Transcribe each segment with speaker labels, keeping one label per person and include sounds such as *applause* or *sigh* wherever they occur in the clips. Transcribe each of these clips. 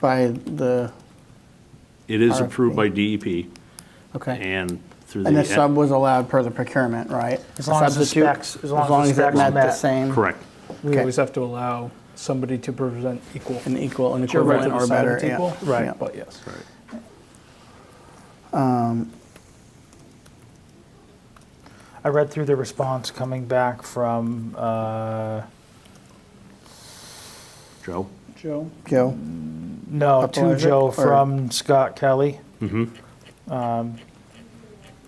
Speaker 1: by the,
Speaker 2: It is approved by DEP
Speaker 1: okay.
Speaker 2: and through the. E
Speaker 1: And the sub was allowed per the procurement, right?
Speaker 3: As
Speaker 1: A
Speaker 3: long as the
Speaker 1: substitute?
Speaker 3: specs- as long as the
Speaker 1: it
Speaker 3: specs
Speaker 1: met the
Speaker 3: met.
Speaker 1: same.
Speaker 2: Correct.
Speaker 3: We
Speaker 1: Okay.
Speaker 3: always have to allow somebody to present equal.
Speaker 1: An equal, an
Speaker 3: It's your right to
Speaker 1: equivalent or
Speaker 3: decide
Speaker 1: better.
Speaker 3: it's
Speaker 1: yeah,
Speaker 3: equal,
Speaker 1: yeah.
Speaker 3: Right, but yes. I read through the response coming back from, uh,
Speaker 2: Joe?
Speaker 3: Joe?
Speaker 1: Joe,
Speaker 3: No, to
Speaker 1: Uploader
Speaker 3: Joe
Speaker 1: or-
Speaker 3: from Scott Kelly. Um,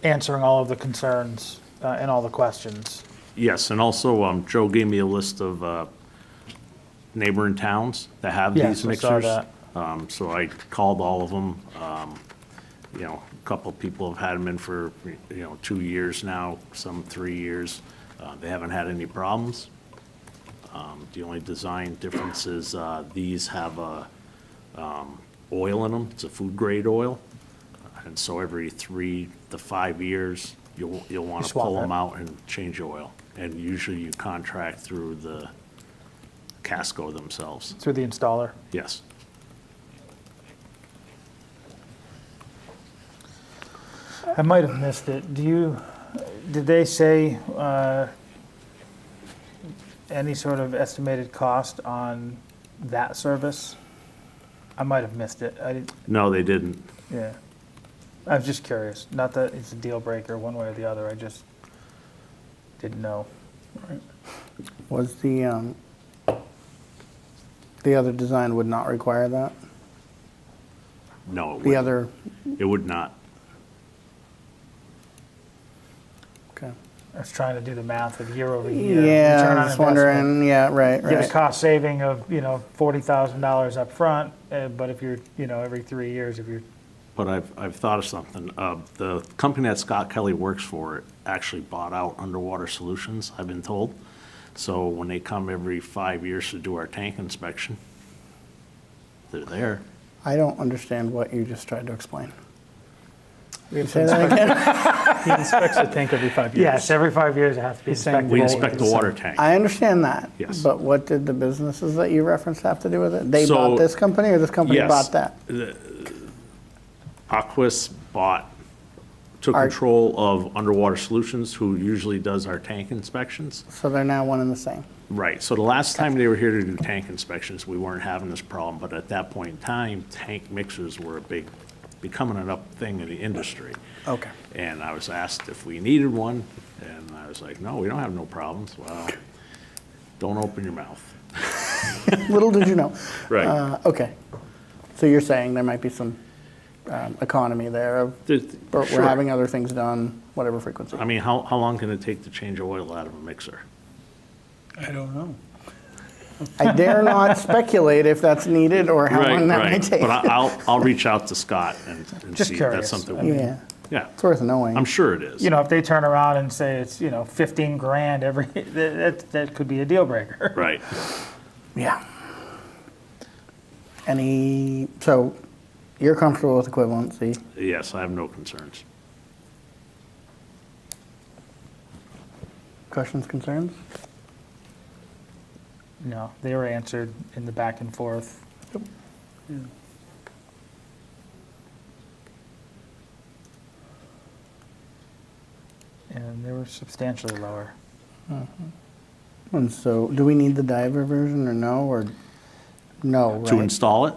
Speaker 3: Answering all of the concerns uh, and all the questions.
Speaker 2: Yes, and also, um, Joe gave me a list of, uh, neighboring towns that have
Speaker 3: Yes,
Speaker 2: these
Speaker 3: I saw
Speaker 2: mixers.
Speaker 3: that.
Speaker 2: Um, so I called all of them, um, you know, a couple of people have had them in for, you know, two years now, some three years. Uh, they haven't had any problems. Um, the only design difference is, uh, these have, uh, um, oil in them, it's a food grade oil. And so every three to five years, you'll, you'll want
Speaker 3: You
Speaker 2: to
Speaker 3: swap
Speaker 2: pull them
Speaker 3: it.
Speaker 2: out and change oil. And usually you contract through the Casco themselves,
Speaker 3: Through the installer.
Speaker 2: yes.
Speaker 3: I might have missed it. Do you, did they say uh, any sort of estimated cost on that service? I might have missed it. I didn't,
Speaker 2: No, they didn't.
Speaker 3: yeah. I was just curious. Not that it's a deal breaker one way or the other. I just didn't know.
Speaker 1: was the, um, the other design would not require that?
Speaker 2: No, it
Speaker 1: The
Speaker 2: wouldn't.
Speaker 1: other,
Speaker 2: It would not.
Speaker 1: okay.
Speaker 3: I was trying to do the math of year over year.
Speaker 1: Yeah,
Speaker 3: return
Speaker 1: I
Speaker 3: on
Speaker 1: was
Speaker 3: investment.
Speaker 1: wondering, yeah, right,
Speaker 3: You Get a
Speaker 1: right.
Speaker 3: cost saving of, you know, $40,000 up front, uh, but if you're, you know, every three years, if you're
Speaker 2: But I've, I've thought of something. Uh, The company that Scott Kelly works for actually bought out Underwater Solutions, I've been told. So when they come every five years to do our tank inspection, they're there.
Speaker 1: I don't understand what you just tried to explain.
Speaker 3: We have
Speaker 1: Say that again?
Speaker 4: *laughs* He inspects the tank every five years.
Speaker 3: Yes, every five years it has to be
Speaker 4: He's saying
Speaker 3: inspected.
Speaker 2: We
Speaker 4: Well,
Speaker 2: inspect the
Speaker 4: it's-
Speaker 2: water tank.
Speaker 1: I understand that.
Speaker 2: Yes.
Speaker 1: But what did the businesses that you referenced have to do with it? They
Speaker 2: So-
Speaker 1: bought this company or this company
Speaker 2: Yes.
Speaker 1: bought that?
Speaker 2: Aquas bought, took
Speaker 1: Our-
Speaker 2: control of Underwater Solutions, who usually does our tank inspections.
Speaker 1: So they're now one and the same.
Speaker 2: Right, so the last time they were here to do tank inspections, we weren't having this problem, but at that point in time, tank mixers were a big, becoming an up thing in the industry.
Speaker 1: Okay.
Speaker 2: And I was asked if we needed one, and I was like, no, we don't have no problems. Well, don't open your mouth.
Speaker 1: *laughs* Little did you know.
Speaker 2: Right.
Speaker 1: Uh, Okay. So you're saying there might be some um, economy there of,
Speaker 2: There's-
Speaker 1: but
Speaker 2: sure.
Speaker 1: we're having other things done, whatever frequency.
Speaker 2: I mean, how, how long can it take to change oil out of a mixer?
Speaker 4: I don't know.
Speaker 1: I dare
Speaker 2: *laughs*
Speaker 1: not speculate if that's needed or how long that might take.
Speaker 2: But I- I'll, I'll reach out to Scott and and
Speaker 3: Just
Speaker 2: see if that's
Speaker 3: curious. I
Speaker 2: something.
Speaker 3: mean-
Speaker 1: Yeah,
Speaker 2: Yeah,
Speaker 1: it's worth knowing.
Speaker 2: I'm sure it is.
Speaker 3: You know, if they turn around and say it's, you know, 15 grand every, *laughs* that, that- that could be a deal breaker.
Speaker 2: Right.
Speaker 1: Yeah. Any, so you're comfortable with equivalency?
Speaker 2: Yes, I have no concerns.
Speaker 1: Questions, concerns?
Speaker 3: No, they were answered in the back and forth. And they were substantially lower.
Speaker 1: And so, do we need the diver version or no, or no,
Speaker 2: To
Speaker 1: right?
Speaker 2: install it?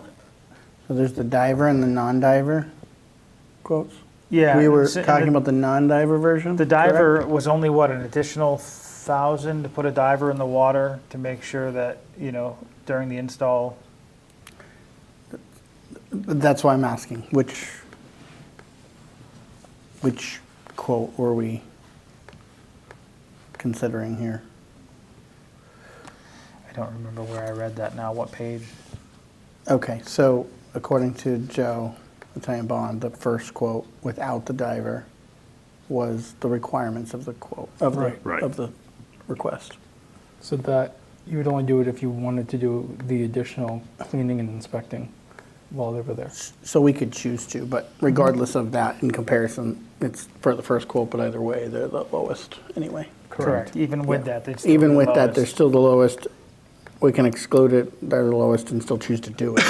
Speaker 1: So there's the diver and the non-diver quotes?
Speaker 3: Yeah.
Speaker 1: We were
Speaker 3: and so- and
Speaker 1: talking
Speaker 3: the-
Speaker 1: about the non-diver version?
Speaker 3: The
Speaker 1: correct?
Speaker 3: diver was only, what, an additional thousand to put a diver in the water to make sure that, you know, during the install,
Speaker 1: That's why I'm asking, which, which quote were we considering here?
Speaker 3: I don't remember where I read that now, what page.
Speaker 1: Okay, so according to Joe, Italian Bond, the first quote without the diver was the requirements of the quote, of the,
Speaker 4: Right.
Speaker 2: Right.
Speaker 1: of the request.
Speaker 4: So that, you would only do it if you wanted to do the additional cleaning and inspecting while they were there.
Speaker 1: So we could choose to, but regardless of that, in comparison, it's for the first quote, but either way, they're the lowest anyway.
Speaker 3: Even with
Speaker 1: Yeah.
Speaker 3: that, they still.
Speaker 1: Even
Speaker 3: were
Speaker 1: with that,
Speaker 3: lowest.
Speaker 1: they're still the lowest. We can exclude it, they're the lowest and still choose to do it.